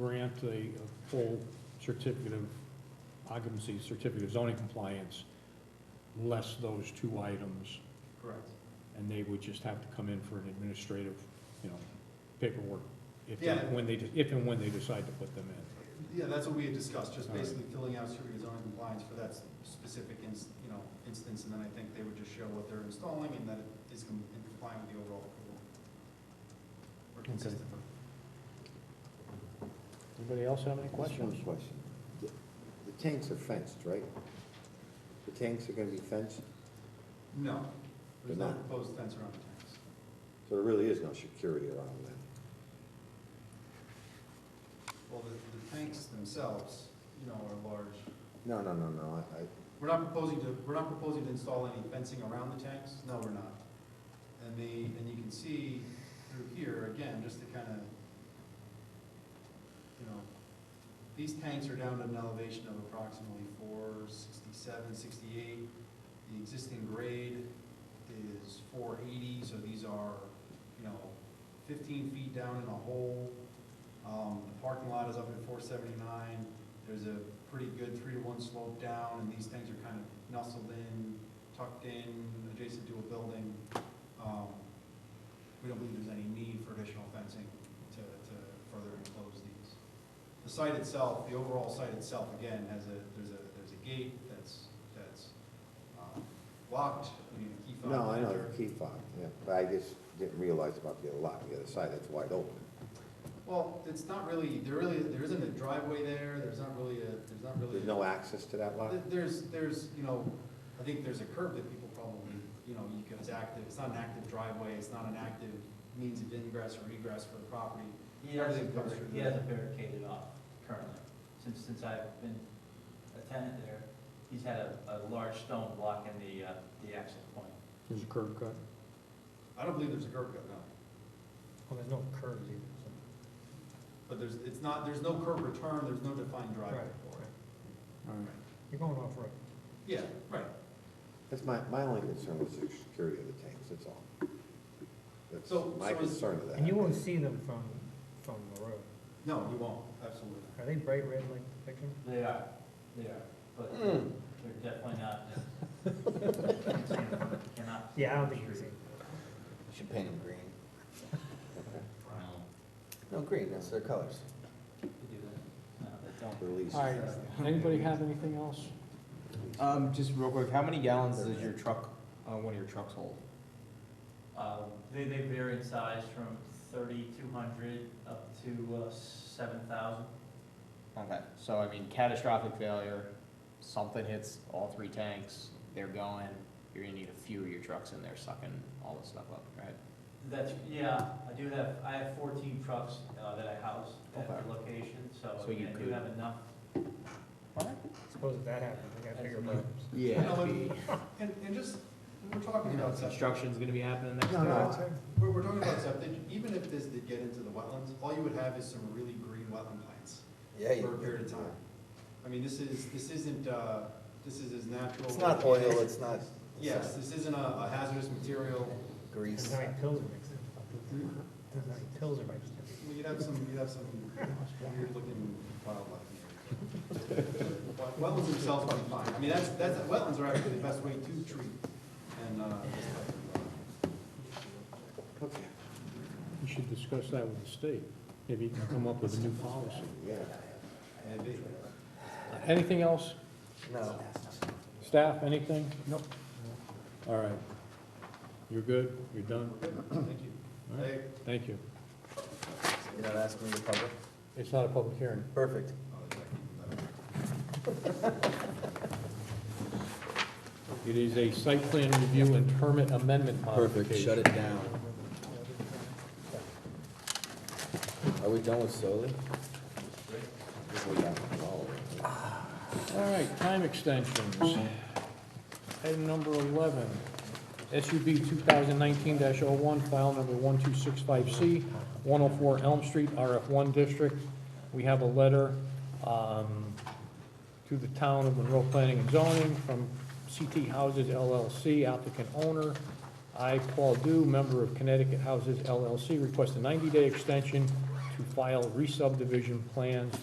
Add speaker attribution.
Speaker 1: grant a a full certificate of occupancy, certificate of zoning compliance, less those two items,
Speaker 2: Correct.
Speaker 1: and they would just have to come in for an administrative, you know, paperwork, if, they-
Speaker 2: Yeah.
Speaker 1: when they, de- if and when they decide to put them in.
Speaker 2: Yeah, that's what we had discussed, just
Speaker 1: All right.
Speaker 2: basically filling out certificate of zoning compliance for that s- specific ins, you know, instance, and then I think they would just show what they're installing and that it is com- in compliance with the overall approval. Or consistent.
Speaker 3: Anybody else have any
Speaker 4: Just one
Speaker 3: questions?
Speaker 4: question. The the tanks are fenced, right? The tanks are gonna be fenced,
Speaker 2: No, there's no
Speaker 4: They're not.
Speaker 2: proposed fence around the tanks.
Speaker 4: so there really is no security around them.
Speaker 2: Well, the, the tanks themselves, you know, are large.
Speaker 4: No, no, no, no, I, I,
Speaker 2: We're not proposing to, we're not proposing to install any fencing around the tanks, no, we're not. And the, and you can see through here, again, just to kind of, you know, these tanks are down at an elevation of approximately four sixty-seven, sixty-eight. The existing grade is four eighty, so these are, you know, fifteen feet down in a hole. Um, the parking lot is up at four seventy-nine, there's a pretty good three to one slope down, and these things are kind of nestled in, tucked in, adjacent to a building. Um, We don't believe there's any need for additional fencing to, to further enclose these. The site itself, the overall site itself, again, has a, there's a, there's a gate that's, that's um, locked, we need a key fob.
Speaker 4: no, I know,
Speaker 2: there.
Speaker 4: the key fob, yeah, but I just didn't realize about the other lot, the other side, that's wide open.
Speaker 2: Well, it's not really, there really, there isn't a driveway there, there's not really a, there's not really.
Speaker 4: There's
Speaker 2: a-
Speaker 4: no access to that lot?
Speaker 2: Th- There's, there's, you know, I think there's a curb that people probably,
Speaker 4: Mm-hmm.
Speaker 2: you know, you could, it's active, it's not an active driveway, it's not an active means of ingress or egress for the property.
Speaker 5: He hasn't,
Speaker 2: Everything comes through
Speaker 5: he
Speaker 2: the-
Speaker 5: hasn't barricaded off currently, since, since I've been a tenant there, he's had a, a large stone block in the, uh, the access point.
Speaker 1: There's a curb cut.
Speaker 2: I don't believe there's a curb cut, no,
Speaker 1: Well, there's no curb either,
Speaker 2: but there's, it's not, there's no curb return, there's no defined driveway for it.
Speaker 1: All right. You're going off road.
Speaker 2: Yeah, right.
Speaker 4: That's my, my only concern was the security of the tanks, that's all. That's
Speaker 2: So-
Speaker 4: my
Speaker 2: so is-
Speaker 4: concern of that.
Speaker 6: And you won't see them from, from the road.
Speaker 2: No, you won't, absolutely
Speaker 6: Are they bright red like the picture?
Speaker 5: They are, they are, but they're definitely not. uh, Cannot.
Speaker 6: Yeah, I don't think you can see.
Speaker 7: Should paint them green.
Speaker 5: Brown,
Speaker 7: No, green, that's their colors.
Speaker 5: you do that, no, they don't.
Speaker 4: Release.
Speaker 1: All right, anybody have anything else?
Speaker 7: Um, just real quick, how many gallons does your truck, uh, one of your trucks hold?
Speaker 5: Uh, they, they vary in size from thirty-two hundred up to, uh, seven thousand.
Speaker 7: Okay, so I mean catastrophic failure, something hits all three tanks, they're going, you're gonna need a few of your trucks in there sucking all this stuff up, right?
Speaker 5: That's, yeah, I do have, I have fourteen trucks uh, that I house at
Speaker 7: Okay.
Speaker 5: the location, so I
Speaker 7: So you
Speaker 5: mean, I do
Speaker 7: could-
Speaker 5: have enough.
Speaker 6: Suppose if that happened, we got bigger problems.
Speaker 2: Yeah.
Speaker 7: The
Speaker 2: And, and just, when we're talking about septic,
Speaker 7: Construction's gonna be happening next
Speaker 4: No, no,
Speaker 7: door.
Speaker 4: I-
Speaker 2: we're, we're talking about septic, even if this did get into the wetlands, all you would have is some really green wetland plants
Speaker 4: Yeah,
Speaker 2: for a
Speaker 4: you-
Speaker 2: period of time. I mean, this is, this isn't, uh, this is as natural.
Speaker 7: It's not oil, it's not
Speaker 2: Yes, this isn't a- a hazardous material.
Speaker 7: grease.
Speaker 6: That's how many pills are mixed in. That's how many pills are mixed in.
Speaker 2: Well, You'd have some, you'd have some weird-looking wildlife. in there. But Wetlands themselves are fine. I mean, that's, that's, wetlands are actually the best way to treat and, uh, this type of, uh,
Speaker 4: Okay,
Speaker 1: We should discuss that with the state, maybe you can come up with a new policy.
Speaker 4: yeah.
Speaker 2: maybe.
Speaker 1: Anything else?
Speaker 4: No.
Speaker 1: Staff, anything? Nope. All right. You're good? You're done?
Speaker 2: Thank you.
Speaker 1: All right.
Speaker 2: Hey,
Speaker 1: Thank you.
Speaker 7: You're not asking the public?
Speaker 1: It's not a public hearing.
Speaker 7: Perfect.
Speaker 2: oh, it's like-
Speaker 1: It is a site plan review and permit amendment modification.
Speaker 7: it down. Are we done with solar?
Speaker 1: All right, time extensions. Item number 11, SUB 2019-01, file number 1265C, 104 Elm Street, RF1 District. We have a letter um, to the town of Monroe Planning and Zoning from CT Houses LLC, applicant owner. I, Paul Dew, member of Connecticut Houses LLC, request a 90-day extension to file re-subdivision plans